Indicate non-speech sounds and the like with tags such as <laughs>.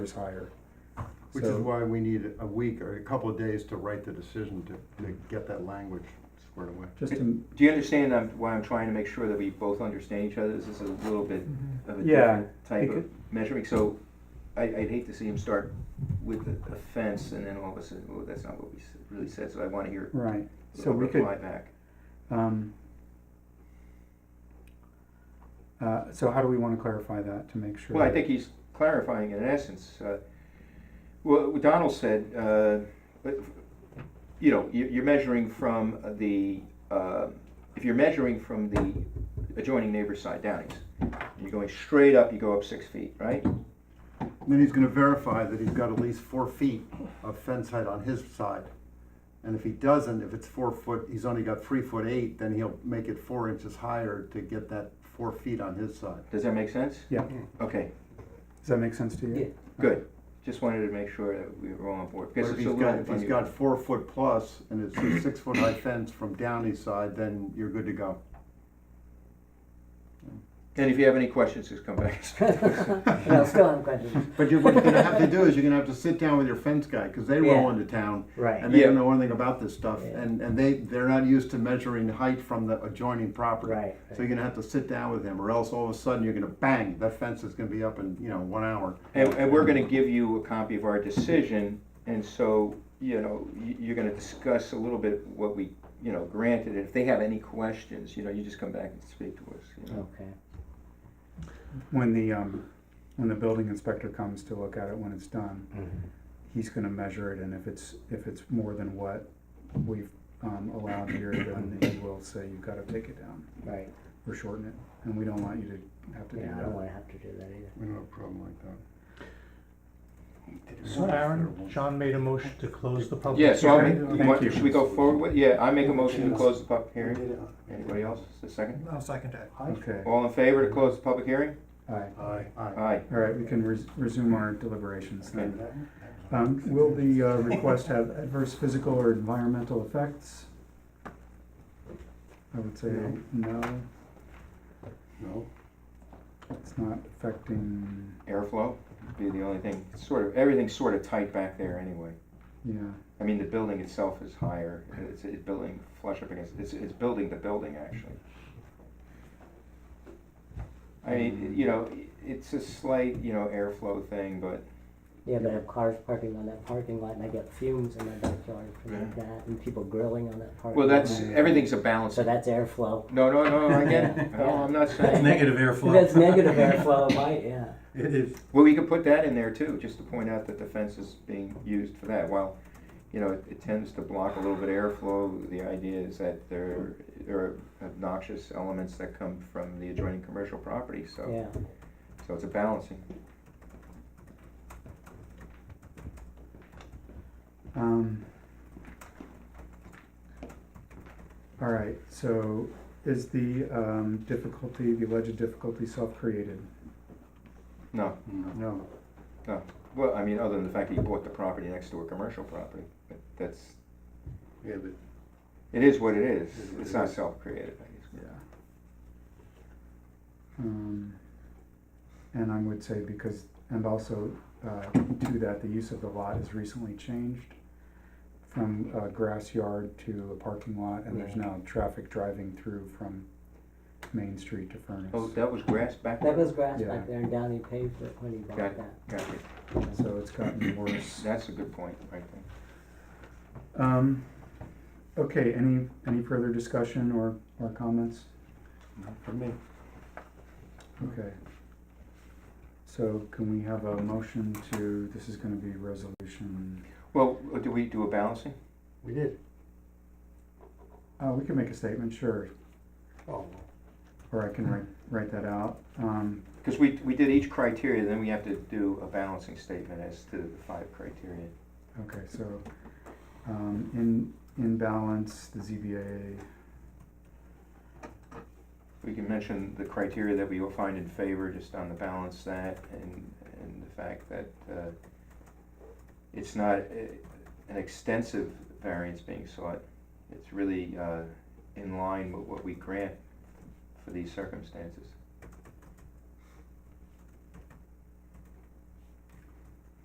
was higher. Which is So- why we need a week or a couple of days to write the decision to, to get that language squared away. Just to, Do you understand um, why I'm trying to make sure that we both understand each other? This is a little bit of a Yeah, different type of becau- measuring. So I, I'd hate to see him start with the offense and then all of a sudden, oh, that's not what we s- really said. So I want to hear right, a so we could, reply back. um, uh, so how do we wanna clarify that to make sure? Well, I think he's clarifying it in essence. Uh, Well, what Donald said, uh, but, you know, you- you're measuring from the, uh, if you're measuring from the adjoining neighbor's side downings, you're going straight up, you go up six feet, right? Then he's gonna verify that he's got at least four feet of fence height on his side. And if he doesn't, if it's four foot, he's only got three foot eight, then he'll make it four inches higher to get that four feet on his side. Does that make sense? Yeah, Okay, does that make sense to you? good. Just wanted to make sure that we were all on board. But because if it's a he's little got, if he's confusing. got four foot plus and it's a six foot high fence from Downey's side, then you're good to go. And if you have any questions, just come back. No, still have questions. But you're, what you're gonna have to do is you're gonna have to sit down with your fence guy, cause they roll Yeah. into town. Right. And they don't Yeah. know anything about this stuff, Yeah. and, and they, they're not used to measuring height from the adjoining property. Right, So you're gonna have to sit down with him, or else all of a sudden you're gonna bang, that fence is gonna be up in, you know, one hour. And, and we're gonna give you a copy of our decision, and so, you know, you, you're gonna discuss a little bit what we, you know, granted, and if they have any questions, you know, you just come back and speak to us, you know. Okay. When the, um, when the building inspector comes to look at it when it's done, Mm-hmm. he's gonna measure it, and if it's, if it's more than what we've, um, allowed here, then he will say, you've gotta take it down Right. or shorten it, and we don't want you to have to do Yeah, I don't that. want to have to do that either. We don't have a problem like that. So Aaron, John made a motion to close the public Yeah, hearing. so I'll make, Oh. Thank you want- you. should we go forward with, yeah, I make a motion to close the public hearing. Anybody else, a second? I'll second that. Okay, All in favor to close the public hearing? all right, Aye. all right, we can res- resume our deliberations then. Okay. Um, will the, uh, request have adverse physical or environmental effects? I would say no, No, it's not affecting, Airflow would be the only thing, sort of, everything's sort of tight back there anyway. yeah, I mean, the building itself is higher, it's, it's building flush up against, it's, it's building the building, actually. I mean, you know, it's a slight, you know, airflow thing, but, Yeah, but if cars parking on that parking lot and I get fumes in my backyard from Yeah. that and people grilling on that parking well, lot. that's, everything's a balance. So that's airflow. No, no, no, I get <laughs> it, no, I'm not It's saying, negative airflow. That's negative airflow, right, yeah. It is. well, we could put that in there too, just to point out that the fence is being used for that, while, you know, it- it tends to block a little bit of airflow, the idea is that there, there are obnoxious elements that come from the adjoining commercial property, so. Yeah, So it's a balancing. um. All right, so is the, um, difficulty, the alleged difficulty self-created? No, no. well, I mean, other than the fact that he bought the property next to a commercial property, but that's, Yeah, but it is what it is. It is what It's it not is. self-created, I guess. Yeah. Um, and I would say because, and also, uh, to that, the use of the lot is recently changed from a grass yard to a parking lot, and there's Yeah. now traffic driving through from Main Street to Furnace. Oh, that was grass back there? that was grass Yeah. back there and Downey paved it when he bought Got it. that. Gotcha. So it's gotten worse. That's a good point, right there. Um, okay, any, any further discussion or, or comments? not for me. Okay. So can we have a motion to, this is gonna be resolution Well, uh, do we do a balancing? We did. Uh, we can make a statement, sure, Oh. or I can write, write that out. Um, Because we, we did each criteria, then we have to do a balancing statement as to the five criteria. okay, so, um, in, in balance, the ZBA, We can mention the criteria that we will find in favor, just on the balance that, and, and the fact that, uh, it's not uh, an extensive variance being sought. It's really, uh, in line with what we grant for these circumstances.